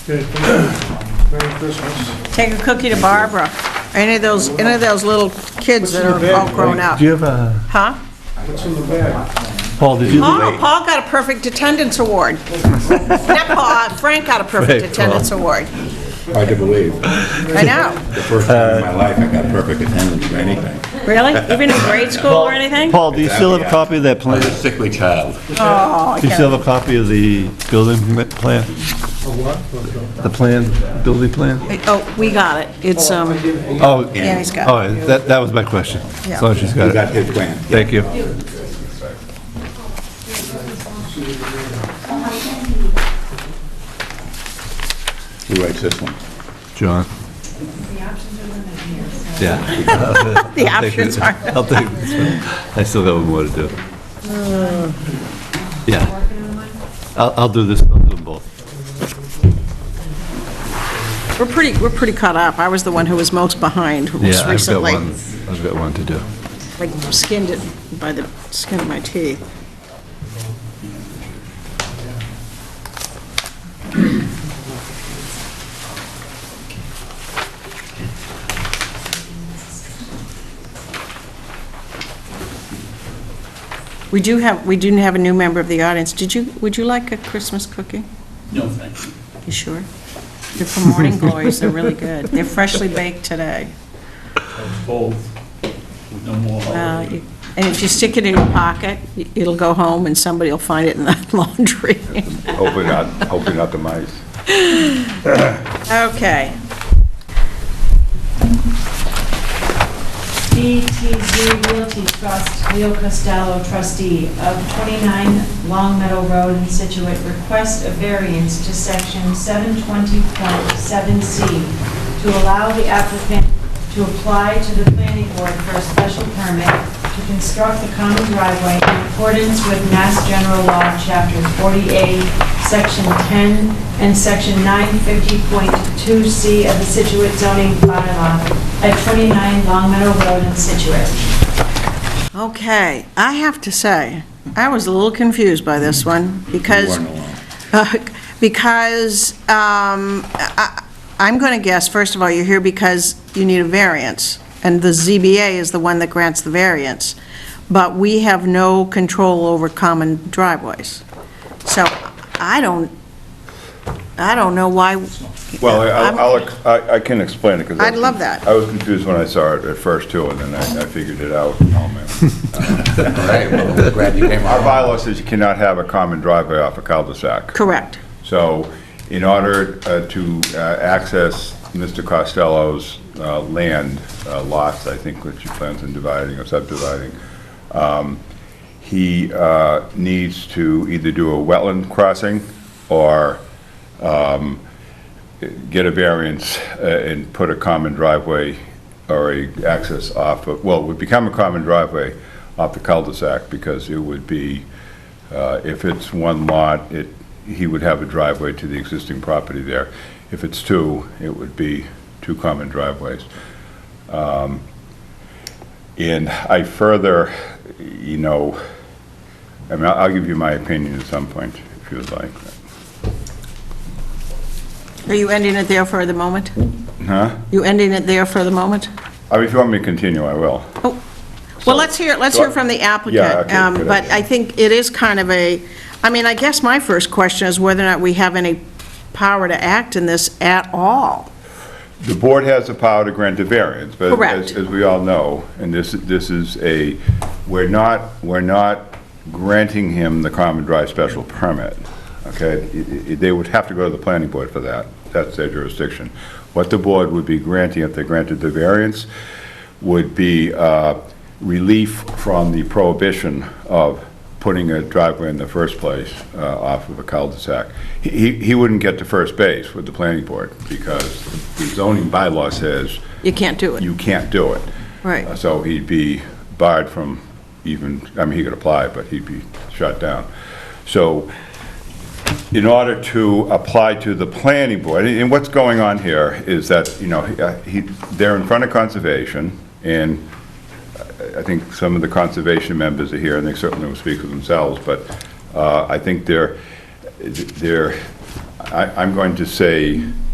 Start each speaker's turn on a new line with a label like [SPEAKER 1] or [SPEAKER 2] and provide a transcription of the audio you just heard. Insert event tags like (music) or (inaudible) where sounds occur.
[SPEAKER 1] Okay, thank you. Merry Christmas.
[SPEAKER 2] Take a cookie to Barbara, any of those, any of those little kids that are all grown up.
[SPEAKER 3] Do you have a,
[SPEAKER 2] Huh?
[SPEAKER 1] What's in the bag?
[SPEAKER 3] Paul, did you,
[SPEAKER 2] Paul, Paul got a perfect attendance award. Not Paul, Frank got a perfect
[SPEAKER 3] Frank,
[SPEAKER 2] attendance award.
[SPEAKER 4] Hard to believe.
[SPEAKER 2] I know,
[SPEAKER 4] The first time in my life I got perfect attendance for anything.
[SPEAKER 2] really? Even in grade school or anything?
[SPEAKER 3] Paul, do you still have a copy of that
[SPEAKER 4] I
[SPEAKER 3] plan?
[SPEAKER 4] was a sickly child.
[SPEAKER 2] Oh, I
[SPEAKER 3] Do you
[SPEAKER 2] can't.
[SPEAKER 3] still have a copy of the building m- plan?
[SPEAKER 1] A what?
[SPEAKER 3] The plan, building plan?
[SPEAKER 2] Oh, we got it, it's, um,
[SPEAKER 3] Oh,
[SPEAKER 2] yeah, he's got it.
[SPEAKER 3] oh, that, that was my question.
[SPEAKER 2] Yeah.
[SPEAKER 3] So she's
[SPEAKER 4] You
[SPEAKER 3] got
[SPEAKER 4] got
[SPEAKER 3] it.
[SPEAKER 4] his plan.
[SPEAKER 3] Thank you.
[SPEAKER 4] Who writes this one?
[SPEAKER 3] John? Yeah.
[SPEAKER 2] The
[SPEAKER 3] Oh, I'll take
[SPEAKER 2] options
[SPEAKER 3] it.
[SPEAKER 2] are,
[SPEAKER 3] (laughs) I'll take this one. I still have more to do.
[SPEAKER 2] Uh,
[SPEAKER 3] Yeah. I'll, I'll do this, I'll do them both.
[SPEAKER 2] we're pretty, we're pretty caught up. I was the one who was most behind
[SPEAKER 3] Yeah,
[SPEAKER 2] most
[SPEAKER 3] I've got
[SPEAKER 2] recently.
[SPEAKER 3] one, I've got one to do.
[SPEAKER 2] Like skinned it by the skin of my teeth. We do have, we do have a new member of the audience. Did you, would you like a Christmas cookie?
[SPEAKER 5] No, thanks.
[SPEAKER 2] You sure? They're from Morning Glories, they're really good. They're freshly baked today.
[SPEAKER 5] Both. No more
[SPEAKER 2] Uh,
[SPEAKER 5] holiday.
[SPEAKER 2] you- And if you stick it in your pocket, y- it'll go home and somebody will find it in the (laughs) laundry.
[SPEAKER 4] Hopefully not, hopefully not the mice.
[SPEAKER 2] Okay.
[SPEAKER 6] BTG Realty Trust, Leo Costello trustee of 29 Long Meadow Road in Situate, request a variance to section 720.7C to allow the applicant to apply to the planning board for a special permit to construct the common driveway in accordance with Mass General Law, Chapter 40A, Section 10, and Section 950.2C of the Situate zoning bylaw at 29 Long Meadow Road in Situate.
[SPEAKER 2] Okay, I have to say, I was a little confused by this one
[SPEAKER 4] You
[SPEAKER 2] because, uh,
[SPEAKER 4] weren't alone.
[SPEAKER 2] (laughs) because um, I- I'm going to guess, first of all, you're here because you need a variance, and the ZBA is the one that grants the variance, but we have no control over common driveways. So I don't, I don't know why,
[SPEAKER 7] Well, I-
[SPEAKER 2] I'm-
[SPEAKER 7] I'll- I'll, I I can explain it, because...
[SPEAKER 2] I'd love that.
[SPEAKER 7] I was confused when I saw it at first, too, and then I I figured it out. Oh, man.
[SPEAKER 4] All right, well, we're glad you came
[SPEAKER 7] Our
[SPEAKER 4] along.
[SPEAKER 7] bylaw says you cannot have a common driveway off a cul-de-sac.
[SPEAKER 2] correct.
[SPEAKER 7] So in order uh, to uh, access Mr. Costello's uh, land, uh, lots, I think, which he plans on dividing or subdividing, um, he uh, needs to either do a wetland crossing or um, get a variance uh, and put a common driveway or a access off, of- well, it would become a common driveway off the cul-de-sac because it would be, uh, if it's one lot, it, he would have a driveway to the existing property there. If it's two, it would be two common driveways. Um, And I further, you know, I mean, I'll I'll give you my opinion at some point, if you would like.
[SPEAKER 2] Are you ending it there for the moment?
[SPEAKER 7] Huh?
[SPEAKER 2] You ending it there for the moment?
[SPEAKER 7] I mean, If you want me to continue, I will.
[SPEAKER 2] Well, let's hear, let's hear from the
[SPEAKER 7] Yeah,
[SPEAKER 2] applicant,
[SPEAKER 7] okay,
[SPEAKER 2] um,
[SPEAKER 7] good
[SPEAKER 2] but
[SPEAKER 7] idea.
[SPEAKER 2] I think it is kind of a, I mean, I guess my first question is whether or not we have any power to act in this at all.
[SPEAKER 7] The board has the power to grant a variance, but
[SPEAKER 2] Correct.
[SPEAKER 7] as- as we all know, and this, this is a, we're not, we're not granting him the common drive special permit, okay? I- I- They would have to go to the planning board for that, that's their jurisdiction. What the board would be granting if they granted the variance would be uh, relief from the prohibition of putting a driveway in the first place uh, off of a cul-de-sac. He- He he wouldn't get to first base with the planning board because the zoning bylaw says
[SPEAKER 2] You can't do it.
[SPEAKER 7] you can't do it. Uh,
[SPEAKER 2] Right.
[SPEAKER 7] So he'd be barred from even, I mean, he could apply, but he'd be shut down. So in order to apply to the planning board, and what's going on here is that, you know, he- uh, he, they're in front of conservation, and I- I think some of the conservation members are here, and they certainly will speak for themselves, but uh, I think they're, they're, I, I'm going to say